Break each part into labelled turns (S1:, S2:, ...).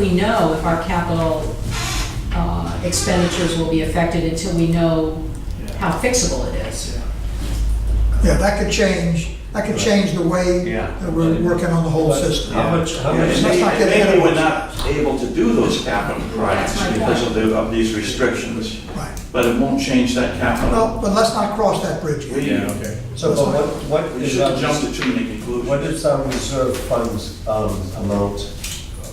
S1: we know if our capital uh, expenditures will be affected until we know how fixable it is.
S2: Yeah, that could change, that could change the way
S3: Yeah.
S2: that we're working on the whole system.
S3: Yeah.
S4: How much, how
S5: Yeah,
S4: much,
S5: and
S2: Let's
S5: may-
S2: not get ahead
S5: Maybe
S2: of
S5: we're not
S2: ourselves.
S5: able to do those capital projects because of the, of these restrictions,
S2: Right.
S5: but it won't change that
S2: Well,
S5: capital.
S2: but let's not cross that bridge yet.
S5: We,
S4: so but what, what
S5: we
S4: is our,
S5: shouldn't jump to too many conclusions.
S4: what is our reserve funds um, amount?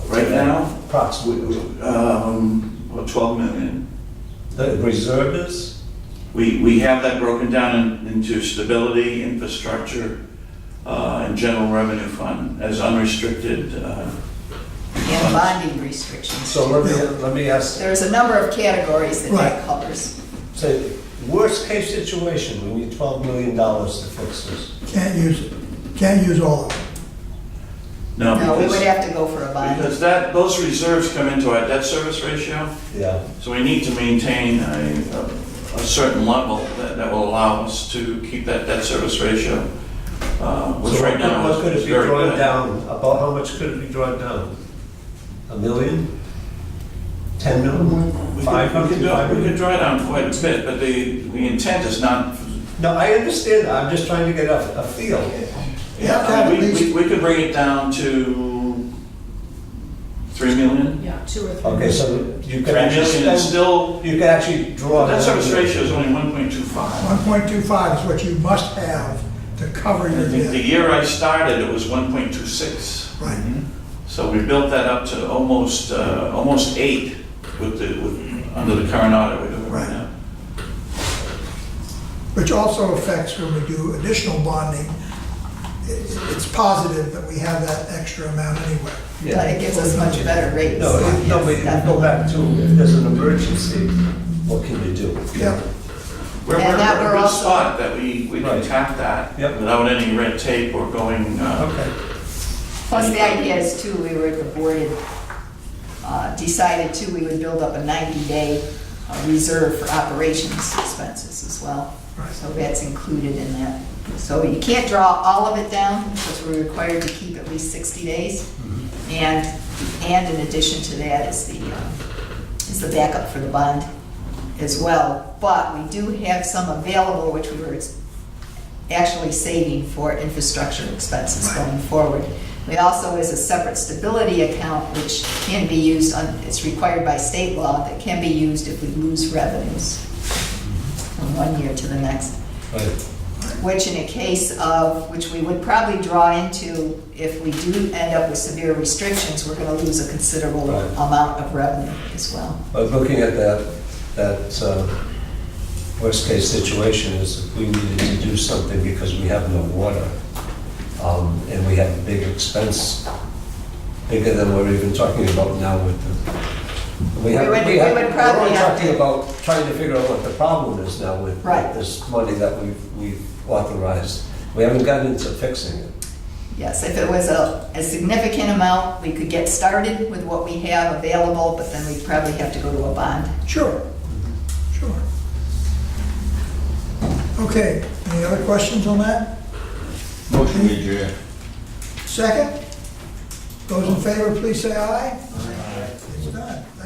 S5: Right now?
S4: Approximately,
S5: Um, well, 12 million.
S4: the reserve is?
S5: We, we have that broken down in- into stability, infrastructure, uh, and general revenue fund as unrestricted. uh,
S6: and bonding restrictions.
S4: So let me, let me ask,
S6: There's a number of categories that
S2: Right.
S6: that covers.
S4: say, worst case situation, we need twelve million dollars to fix this.
S2: Can't use it, can't use all of it.
S5: No,
S6: No, we would
S5: because,
S6: have to go for a bond.
S5: because that, those reserves come into our debt service ratio.
S4: Yeah,
S5: So we need to maintain a, a certain level that, that will allow us to keep that debt service ratio, uh, which
S4: So
S5: right now
S4: What could it
S5: is is
S4: be
S5: very
S4: drawn
S5: good.
S4: down, about how much could it be drawn down? A million? Ten million?
S5: We
S4: Five hundred?
S5: could, we could draw, we could draw down quite a bit, but the, the intent is not.
S4: No, I understand that, I'm just trying to get a, a feel.
S2: You have to have
S5: I mean,
S2: at
S5: uh, we-
S2: least-
S5: We, we could bring it down to three million.
S1: Yeah, two or three.
S4: Okay, so you
S5: Three
S4: could actually
S5: million
S4: spend,
S5: is still,
S4: you could actually draw.
S5: that service
S4: down.
S5: ratio is only one point two five.
S2: 1.25 is what you must have to cover your
S5: The
S2: debt.
S5: year I started, it was one point two six.
S2: Right,
S5: So we built that up to almost, uh, almost eight with the, with, under the current audit we're doing right
S2: Right.
S5: now.
S2: which also affects when we do additional bonding. It- It's positive that we have that extra amount anyway.
S6: But
S4: Yeah.
S6: it gives us much better rates.
S4: No, it- no, we we go back to, if there's an emergency, what can you do?
S2: Yeah,
S5: We're,
S6: And
S5: we're we're
S6: that we're
S5: in a good
S6: also-
S5: spot that we, we can
S4: Right.
S5: tap that
S4: Yep.
S5: without any red tape or going, uh,
S4: Okay.
S6: Plus, the idea is too, we were, the board had uh, decided too, we would build up a 90-day uh, reserve for operations expenses as well.
S2: Right.
S6: So that's included in that. So you can't draw all of it down because we're required to keep at least 60 days. And, and in addition to that is the, um, is the backup for the bond as well. But we do have some available, which we were ex- actually saving for infrastructure expenses going forward. We also, is a separate stability account, which can be used, on it's required by state law, that can be used if we lose revenues from one year to the next,
S4: Right.
S6: which in a case of, which we would probably draw into if we do end up with severe restrictions, we're going to lose a considerable
S4: Right.
S6: amount of revenue as well.
S4: But looking at that, that uh, worst-case situation is if we needed to do something because we have no water, um, and we have a big expense, bigger than we're even talking about now with the... have-
S6: We would-
S4: have-
S6: we would probably
S4: We're only
S6: have
S4: talking
S6: to-
S4: about trying to figure out what the problem is now with
S6: Right.
S4: with this money that we've we've authorized. We haven't gotten into fixing it.
S6: Yes, if it was a, a significant amount, we could get started with what we have available, but then we'd probably have to go to a bond.
S2: sure, sure. Okay, any other questions on that?
S7: Motion to adjourn.
S2: Second? Those in favor, please say aye. It's done.